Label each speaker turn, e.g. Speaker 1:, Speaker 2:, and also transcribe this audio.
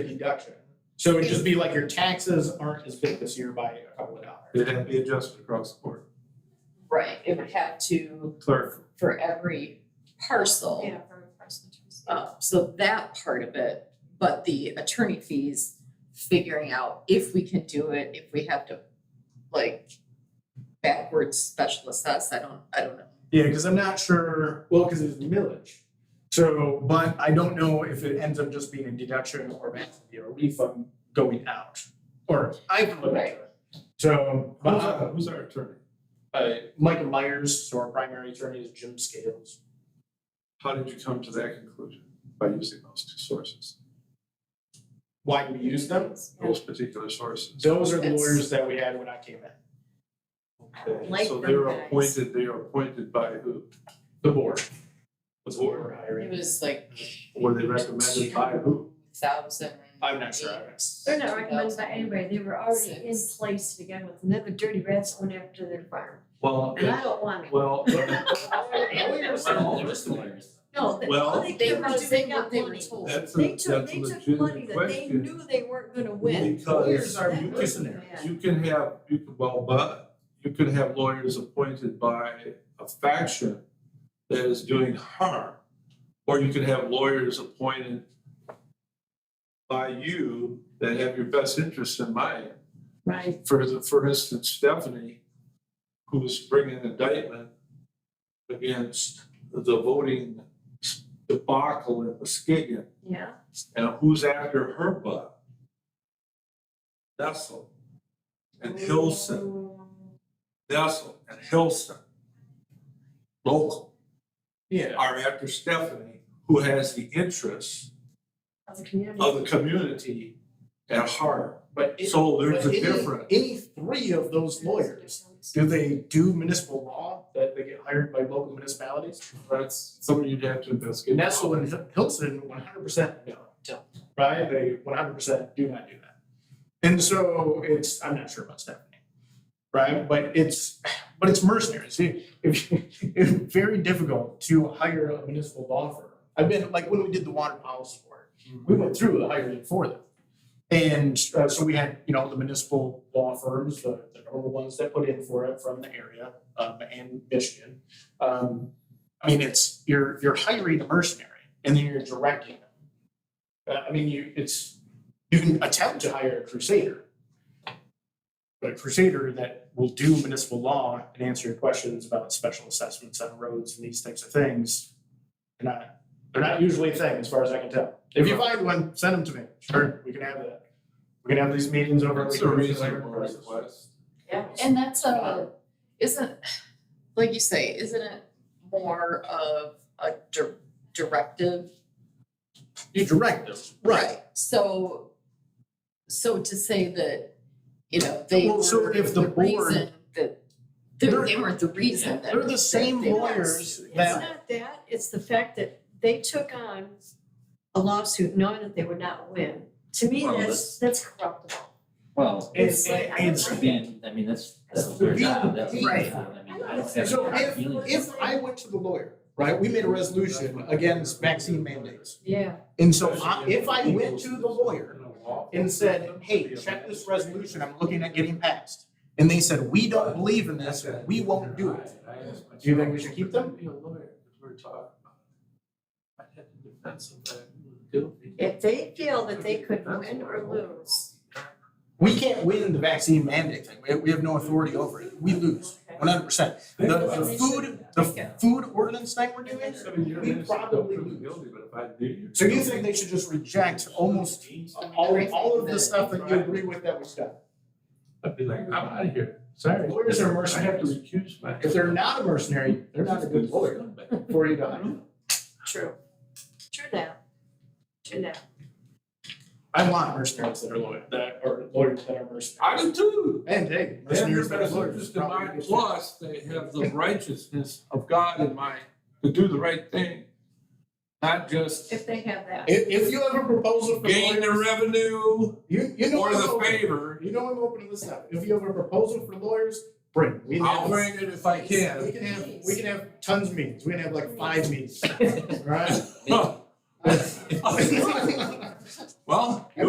Speaker 1: a deduction. So it'd just be like your taxes aren't as big this year by a couple of dollars.
Speaker 2: It'd have to be adjusted across the board.
Speaker 3: Right, it would have to
Speaker 2: Clerk,
Speaker 3: for every parcel.
Speaker 4: Yeah, for person
Speaker 3: Uh, so that part of it, but the attorney fees, figuring out if we can do it, if we have to like backwards special assess, I don't, I don't know.
Speaker 1: Yeah, because I'm not sure, well, because it's millage. So, but I don't know if it ends up just being a deduction or basically a refund going out. Or I can look into it. So, but,
Speaker 2: who's our,
Speaker 1: uh,
Speaker 2: who's our attorney?
Speaker 1: uh, Michael Myers, so our primary attorney is Jim Scales.
Speaker 2: How did you come to that conclusion? By using those two sources,
Speaker 1: Why do we use them?
Speaker 2: those particular sources.
Speaker 1: Those are the
Speaker 3: It's-
Speaker 1: lawyers that we had when I came in,
Speaker 2: Okay,
Speaker 4: Like
Speaker 2: So
Speaker 4: them
Speaker 2: they're
Speaker 4: guys.
Speaker 2: appointed, they're appointed by who?
Speaker 1: the board. Was what we're hiring.
Speaker 3: It was like
Speaker 2: Were they recommended by who?
Speaker 3: thousand.
Speaker 1: I'm not sure. I-
Speaker 4: They're not recommended by anybody, they were already in
Speaker 3: Six.
Speaker 4: place to begin with, and then the dirty rats went after their farm,
Speaker 2: Well,
Speaker 4: and I don't want it.
Speaker 2: well,
Speaker 1: Lawyers are all just lawyers.
Speaker 4: No, they,
Speaker 2: Well-
Speaker 4: all they care about is
Speaker 3: They
Speaker 4: they
Speaker 3: were doing what
Speaker 4: got
Speaker 3: they were
Speaker 4: money.
Speaker 3: told.
Speaker 2: that's a,
Speaker 4: They
Speaker 2: that's a
Speaker 4: took, they took money
Speaker 2: legitimate
Speaker 4: that they
Speaker 2: question.
Speaker 4: knew they weren't gonna win.
Speaker 2: Because-
Speaker 1: Lawyers are
Speaker 4: That was
Speaker 1: mercenaries.
Speaker 4: bad.
Speaker 2: You can have, you can, well, but you could have lawyers appointed by a faction that is doing harm. Or you could have lawyers appointed by you that have your best interest in mind.
Speaker 4: Right.
Speaker 2: For, the- for instance, Stephanie, who was bringing indictment against the voting debacle in Muskegon.
Speaker 4: Yeah,
Speaker 2: And who's after her butt? Nessel and Hilson, Nessel and Hilson. Local
Speaker 1: Yeah.
Speaker 2: are after Stephanie, who has the interests
Speaker 4: of the community.
Speaker 2: of the community at heart.
Speaker 1: But it-
Speaker 2: So there's a
Speaker 1: but any-
Speaker 2: difference.
Speaker 1: Any three of those lawyers, do they do municipal law that they get hired by local municipalities?
Speaker 2: That's something you'd have to investigate.
Speaker 1: Nestle and Hil- Hilton, one hundred percent no, no, right? They one hundred percent do not do that. And so it's, I'm not sure about Stephanie, right? But it's, but it's mercenaries. It- if- It's very difficult to hire a municipal law firm. I've been, like, when we did the water policy work, we went through the hiring for them. And uh, so we had, you know, the municipal law firms, the, the normal ones that put in for it from the area um, and Michigan. Um, I mean, it's, you're, you're hiring a mercenary and then you're directing them. Uh, I mean, you, it's, you can attempt to hire a crusader. But a crusader that will do municipal law and answer your questions about special assessments on roads and these types of things. They're not, they're not usually a thing, as far as I can tell. If you find one, send them to me. Sure, we can have that. We can have these meetings over.
Speaker 2: That's a
Speaker 1: the weekend.
Speaker 2: reasonable request.
Speaker 3: Yeah, and that's a, isn't, like you say, isn't it more of a dir- directive?
Speaker 1: You direct them, right?
Speaker 3: So, so to say that, you know, they
Speaker 1: Well,
Speaker 3: were
Speaker 1: so if the
Speaker 3: the
Speaker 1: board-
Speaker 3: reason that, they
Speaker 1: They're-
Speaker 3: they were the reason that.
Speaker 1: They're the same
Speaker 3: they-
Speaker 1: lawyers
Speaker 4: It's
Speaker 1: that,
Speaker 4: not that, it's the fact that they took on a lawsuit knowing that they would not win. To me,
Speaker 5: Well,
Speaker 4: that's, that's corruptible.
Speaker 5: Well,
Speaker 1: it's,
Speaker 4: like, I
Speaker 1: it's,
Speaker 4: don't
Speaker 5: again, I mean, that's, that's
Speaker 4: That's
Speaker 5: their
Speaker 1: the
Speaker 5: job,
Speaker 1: reason-
Speaker 5: that's their
Speaker 3: Right.
Speaker 5: job, I mean,
Speaker 4: I
Speaker 5: I
Speaker 4: don't
Speaker 5: don't have
Speaker 1: So
Speaker 5: any
Speaker 1: if-
Speaker 5: feelings.
Speaker 1: if I went to the lawyer, right, we made a resolution against vaccine mandates.
Speaker 4: Yeah.
Speaker 1: And so I- if I went to the lawyer and said, hey, check this resolution, I'm looking at getting passed. And they said, we don't believe in this, we won't do it. Do you think we should keep them?
Speaker 2: Be a lawyer, if we're talking about. it. I had to defend somebody who was guilty.
Speaker 4: If they feel that they could win or lose.
Speaker 1: We can't win the vaccine mandate thing. We, we have no authority over it. We lose, one hundred percent. The, the food, the food ordinance thing we're doing, we probably lose.
Speaker 2: Guilty, but if I knew you.
Speaker 1: So you think they should just reject almost all, all of the stuff that you agree with that was done?
Speaker 2: I'd be like, I'm out of here, sorry.
Speaker 1: Lawyers are
Speaker 2: I have to
Speaker 1: mercenaries.
Speaker 2: recuse myself.
Speaker 1: If they're not a mercenary, they're not a good lawyer for you to hire.
Speaker 4: True. True that. True that.
Speaker 1: I want mercenaries that are lawyer, that are lawyers that are mercenaries.
Speaker 2: I do too.
Speaker 1: And hey,
Speaker 2: They have
Speaker 1: mercenaries
Speaker 2: the
Speaker 1: that are
Speaker 2: best
Speaker 1: lawyers.
Speaker 2: interest in
Speaker 1: probably
Speaker 2: mind,
Speaker 1: good.
Speaker 2: plus they have the righteousness of God in mind, to do the right thing. Not just
Speaker 4: If they have that.
Speaker 1: If, if you have a proposal for
Speaker 2: gain the
Speaker 1: lawyers,
Speaker 2: revenue
Speaker 1: you, you know.
Speaker 2: or
Speaker 1: I'm
Speaker 2: the
Speaker 1: open.
Speaker 2: favor,
Speaker 1: You know I'm open to this stuff. If you have a proposal for lawyers, bring. it. We can
Speaker 2: I'll
Speaker 1: have-
Speaker 2: bring it if I
Speaker 1: We
Speaker 2: can.
Speaker 1: can have, we can have tons of meetings. We can have like five meetings, right?
Speaker 2: Well,